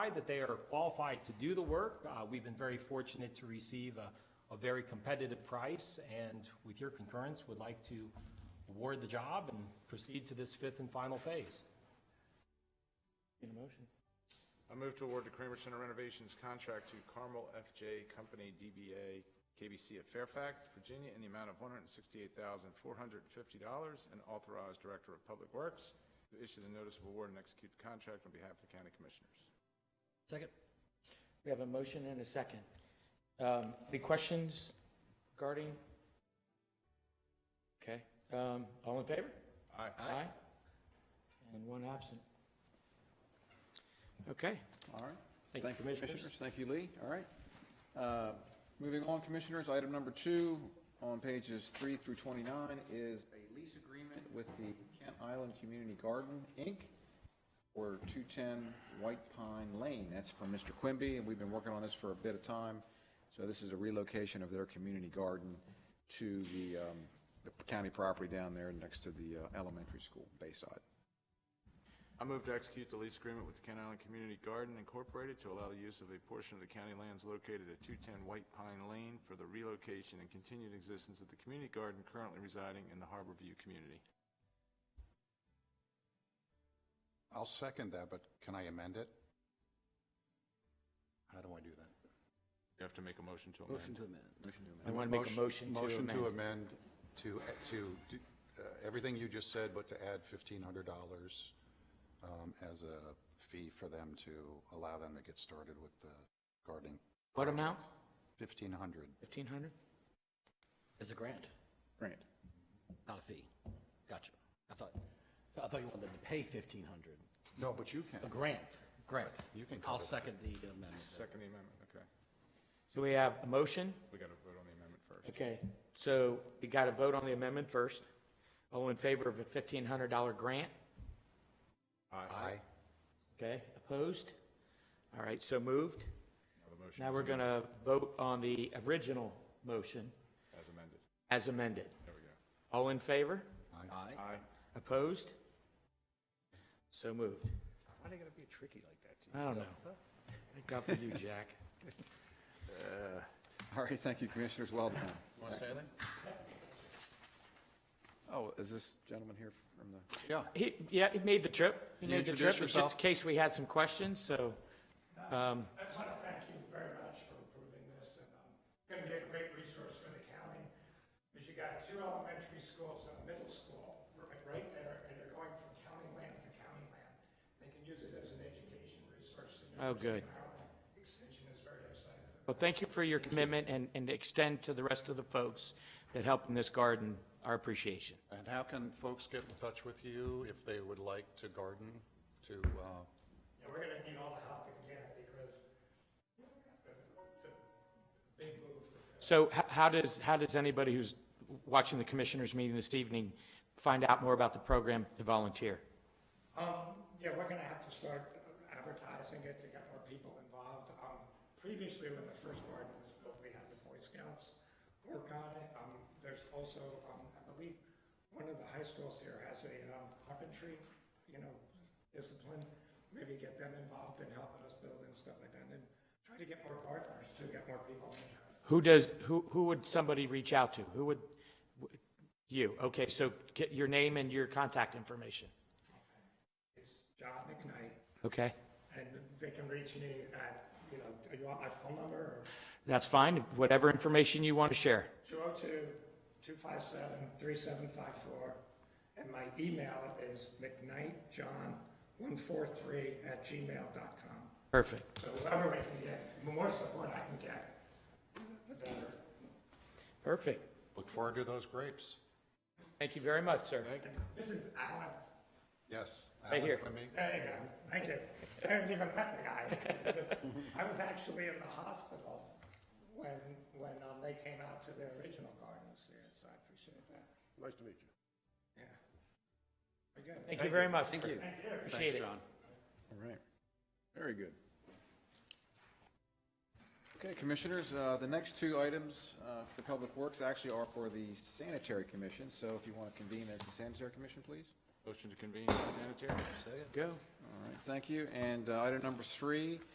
that they are qualified to do the work. Uh, We've been very fortunate to receive a, a very competitive price, and with your concurrence, would like to award the job and proceed to this fifth and final phase. Need a motion? I move to award the Kramer Center renovations contract to Carmel FJ Company DBA KBC of Fairfax, Virginia, in the amount of $168,450 and authorize Director of Public Works to issue the notice of award and execute the contract on behalf of the County Commissioners. Second. We have a motion and a second. Um, Any questions regarding? Okay, um, all in favor? Aye. Aye. And one absent. Okay, All right. Thank you, you, Commissioners. Thank you, Lee. All right. Uh, Moving on, Commissioners, item number two on pages three through 29 is a lease agreement with the Kent Island Community Garden, Inc., or 210 White Pine Lane. That's from Mr. Quimby, and we've been working on this for a bit of time. So this is a relocation of their community garden to the um, the county property down there next to the uh, elementary school, Bayside. I move to execute the lease agreement with the Kent Island Community Garden Incorporated to allow the use of a portion of the county lands located at 210 White Pine Lane for the relocation and continued existence of the community garden currently residing in the Harbor View community. I'll second that, but can I amend it? How do I do that? You have to make a motion to amend. Motion to amend. Motion to amend. I want to make a motion to Motion to amend. amend to, to, do, uh, everything you just said, but to add fifteen hundred dollars, um, as a fee for them to allow them to get started with the gardening. What amount? Fifteen hundred. 1,500? As a grant, Grant. not a fee. Gotcha. I thought, I thought you wanted them to pay fifteen hundred. No, but you A can. grant, grant. You can I'll cut it. second the amendment. Second the amendment, okay. So we have a motion? We got to vote on the amendment first. Okay, so we got to vote on the amendment first. All in favor of a $1,500 grant? Aye. Okay, opposed? All right, so moved. Now the motion Now we're going to vote on the original motion as amended. as amended. There we go. All in favor? Aye. Aye. Opposed? So moved. Why are they going to be tricky like that? I don't know. Thank God for you, Jack. All right, thank you, Commissioners. Well done. Want to say anything? Oh, is this gentleman here from the? Yeah, He, yeah, he made the trip. He You made the introduce trip, It's just yourself. in case we had some questions, so, I just want to thank you very much for approving this, and um, it's going to be a great resource for the county, because you got two elementary schools and a middle school right right there, and they're going from county land to county land. They can use it as an education resource. Oh, and good. University of Maryland Extension is very excited. well, thank you for your commitment and, and extend to the rest of the folks that helped in this garden our appreciation. and how can folks get in touch with you if they would like to garden, to, uh, Yeah, we're going to need all the help we can get, because you know, it's a big move for So h- how does, how does anybody who's watching the commissioners meeting this evening find out more about the program to volunteer? Um, yeah, we're gonna have to start advertising it to get more people involved. Um, previously, when the first garden was built, we had the Boy Scouts work on it. Um, there's also, um, I believe, one of the high schools here has a, um, carpentry, you know, discipline. Maybe get them involved in helping us build and stuff like that, and try to get more partners to get more people interested. Who does, who, who would somebody reach out to? Who would, you, okay, so get your name and your contact information, It's John McKnight, okay? and they can reach me at, you know, do you want my phone number or? That's fine, whatever information you want to share. 202-257-3754, and my email is mcknightjohn143 at gmail dot com. Perfect. So whatever we can get, the more support I can get, the better. Perfect. look forward to those grapes? Thank you very much, sir. This is Alan. Yes. Right Alan here. Quimby? There you go. Thank you. I haven't even met the guy. I was actually in the hospital when, when um, they came out to their original garden this year, so I appreciate that. Nice to meet you. Yeah. Very good. Thank you very much. Thank you. Thank you. Appreciate it. All right. Very good. Okay, Commissioners, uh, the next two items uh, for Public Works actually are for the Sanitary Commission, so if you want to convene as the Sanitary Commission, please. Motion to convene sanitary. Go. All right, thank you. And uh, item number three